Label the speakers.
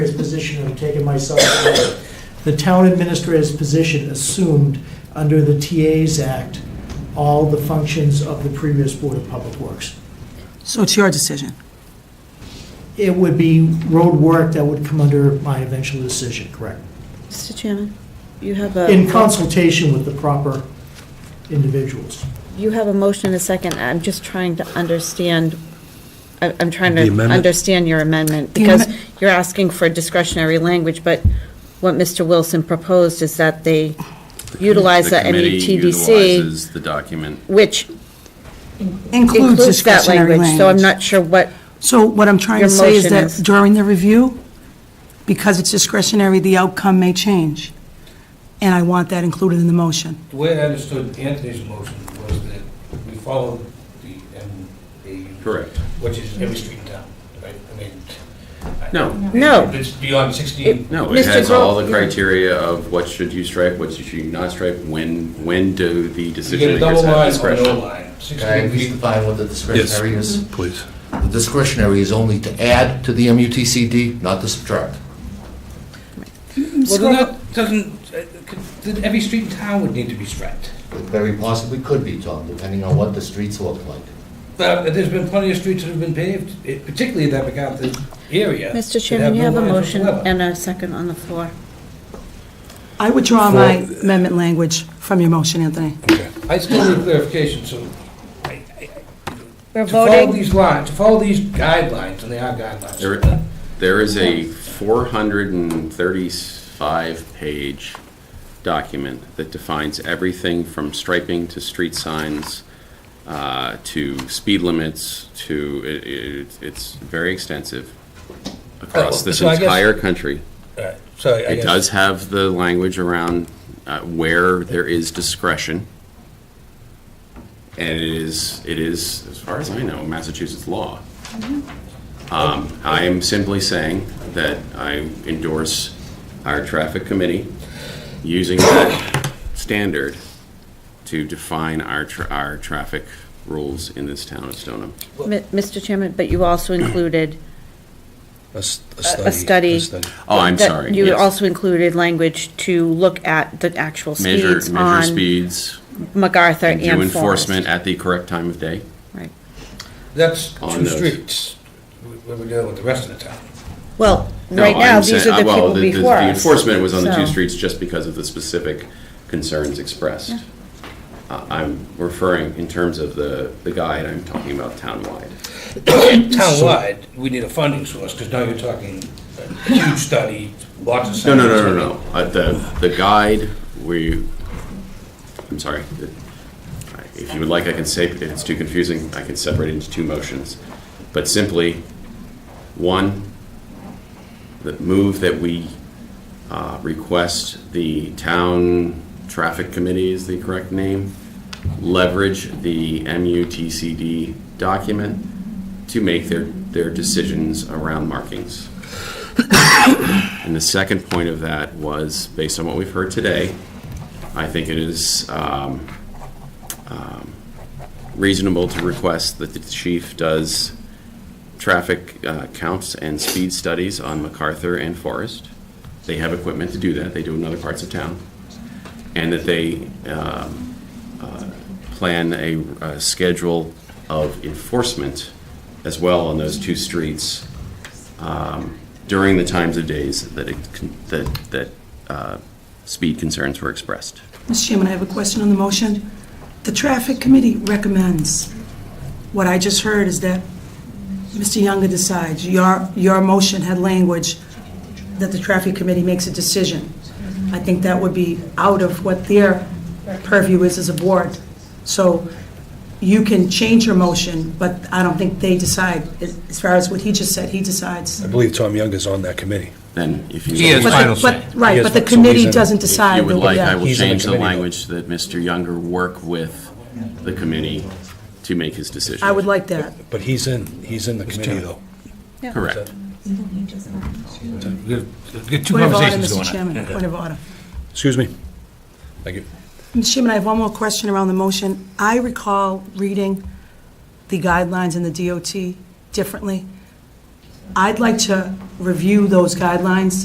Speaker 1: position of taking myself out of the town administrator's position assumed under the TAs Act all the functions of the previous Board of Public Works.
Speaker 2: So it's your decision.
Speaker 1: It would be road work that would come under my eventual decision, correct?
Speaker 3: Mr. Chairman, you have a.
Speaker 1: In consultation with the proper individuals.
Speaker 3: You have a motion and a second. I'm just trying to understand, I- I'm trying
Speaker 4: The
Speaker 3: to
Speaker 4: amendment?
Speaker 3: understand your amendment,
Speaker 2: The
Speaker 3: because
Speaker 2: amen-
Speaker 3: you're asking for discretionary language, but what Mr. Wilson proposed is that they utilize E the
Speaker 5: committee
Speaker 3: NETDC,
Speaker 5: utilizes the document.
Speaker 3: which
Speaker 2: Includes
Speaker 3: includes that
Speaker 2: discretionary
Speaker 3: language.
Speaker 2: language.
Speaker 3: So I'm not sure what,
Speaker 2: So what I'm trying to
Speaker 3: Your
Speaker 2: say is
Speaker 3: motion
Speaker 2: that
Speaker 3: is-
Speaker 2: during the review, because it's discretionary, the outcome may change. And I want that included in the motion.
Speaker 6: The way I understood Anthony's motion was that we followed the MAU.
Speaker 5: Correct.
Speaker 6: Which is every street in town, right? I mean. I-
Speaker 5: No.
Speaker 3: No.
Speaker 6: If It's beyond 16.
Speaker 5: No, it
Speaker 3: Mr.
Speaker 5: has all
Speaker 3: Groh-
Speaker 5: the criteria of what should you stripe, what should you not stripe, when, when do the
Speaker 6: You get
Speaker 5: decision
Speaker 6: a double
Speaker 5: makers have
Speaker 6: line or no
Speaker 5: discretion?
Speaker 6: line.
Speaker 7: Can I
Speaker 6: 16
Speaker 7: at least
Speaker 6: feet.
Speaker 7: define what the discretionary is?
Speaker 4: Please.
Speaker 7: The discretionary is only to add to the MUTCD, not to subtract.
Speaker 6: Well, then that doesn't, uh, could- then every street in town would need to be striped.
Speaker 7: It very possibly could be, Tom, depending on what the streets look like.
Speaker 6: But uh, there's been plenty of streets that have been paved, eh, particularly in that MacArthur area. that
Speaker 3: Mr. Chairman, you
Speaker 6: no
Speaker 3: have a
Speaker 6: lines
Speaker 3: motion
Speaker 6: whatsoever.
Speaker 3: and a second on the floor.
Speaker 2: I withdraw my amendment language from your motion, Anthony.
Speaker 6: I still need clarification, so
Speaker 3: We're
Speaker 6: to follow
Speaker 3: voting,
Speaker 6: these lines, to follow these guidelines, and they are guidelines.
Speaker 5: There- There is a 435-page document that defines everything from striping to street signs, uh, to speed limits, to, it- it- it's very extensive across this
Speaker 6: Oh, so I guess-
Speaker 5: entire country.
Speaker 6: Alright, So I
Speaker 5: It
Speaker 6: guess-
Speaker 5: does have the language around uh, where there is discretion. And it is, it is, as far as I know, Massachusetts law.
Speaker 3: Mm-hmm.
Speaker 5: Um, I am simply saying that I endorse our traffic committee using that standard to define our, tra- our traffic rules in this town of Stoneham.
Speaker 3: Mi- Mr. Chairman, but you also included
Speaker 8: A s- a
Speaker 3: a
Speaker 8: study.
Speaker 3: study.
Speaker 5: Oh, I'm
Speaker 3: that
Speaker 5: sorry.
Speaker 3: You
Speaker 5: yes.
Speaker 3: also included language to look at the actual
Speaker 5: Measure,
Speaker 3: speeds
Speaker 5: measure
Speaker 3: on
Speaker 5: speeds
Speaker 3: MacArthur
Speaker 5: and
Speaker 3: and
Speaker 5: do
Speaker 3: Forest.
Speaker 5: enforcement at the correct time of day.
Speaker 3: Right.
Speaker 6: That's
Speaker 5: On
Speaker 6: two
Speaker 5: those.
Speaker 6: streets, what we're dealing with the rest of the town.
Speaker 3: Well,
Speaker 5: No,
Speaker 3: right now,
Speaker 5: I'm
Speaker 3: these
Speaker 5: saying- uh,
Speaker 3: are the
Speaker 5: well,
Speaker 3: people
Speaker 5: the-
Speaker 3: before us.
Speaker 5: The enforcement was on the two
Speaker 3: so-
Speaker 5: streets just because of the specific concerns expressed. Uh, I'm referring, in terms of the, the guide, I'm talking about townwide.
Speaker 6: Townwide, we need a funding source, because now you're talking a huge study, lots of.
Speaker 5: No, no,
Speaker 6: science.
Speaker 5: no, no, no. Uh, The, the guide, we, I'm sorry. The- If you would like, I can say, if it's too confusing, I can separate it into two motions. But simply, one, the move that we uh, request the town traffic committee is the correct name, leverage the MUTCD document to make their, their decisions around markings. And the second point of that was, based on what we've heard today, I think it is um, um, reasonable to request that the chief does traffic uh, counts and speed studies on MacArthur and Forest. They have equipment to do that, they do in other parts of town. And that they um, uh, plan a a schedule of enforcement as well on those two streets um, during the times of days that, it con- that, that uh, speed concerns were expressed.
Speaker 2: Mr. Chairman, I have a question on the motion. The Traffic Committee recommends. What I just heard is that Mr. Younger decides. Your, your motion had language that the Traffic Committee makes a decision. I think that would be out of what their purview is as a board. So you can change your motion, but I don't think they decide. As as far as what he just said, he decides.
Speaker 8: I believe Tom Young is on that committee.
Speaker 5: Then if you.
Speaker 6: He has
Speaker 2: But the-
Speaker 6: final say.
Speaker 2: but- Right, but
Speaker 8: Yes, so
Speaker 2: the
Speaker 8: he's
Speaker 2: committee
Speaker 8: in-
Speaker 2: doesn't
Speaker 5: If
Speaker 2: decide.
Speaker 5: you would
Speaker 2: the-
Speaker 5: like, I
Speaker 2: yeah.
Speaker 5: will
Speaker 8: He's on the
Speaker 5: change the
Speaker 8: committee.
Speaker 5: language that Mr. Younger work with the committee to make his decision.
Speaker 2: I would like that.
Speaker 8: But he's in, he's in the committee, though.
Speaker 5: Correct.
Speaker 6: We've got- we've got two
Speaker 2: Point of order,
Speaker 6: conversations
Speaker 2: Mr.
Speaker 6: going on.
Speaker 2: Chairman, point of order.
Speaker 8: Excuse me. Thank you.
Speaker 2: Mr. Chairman, I have one more question around the motion. I recall reading the guidelines in the DOT differently. I'd like to review those guidelines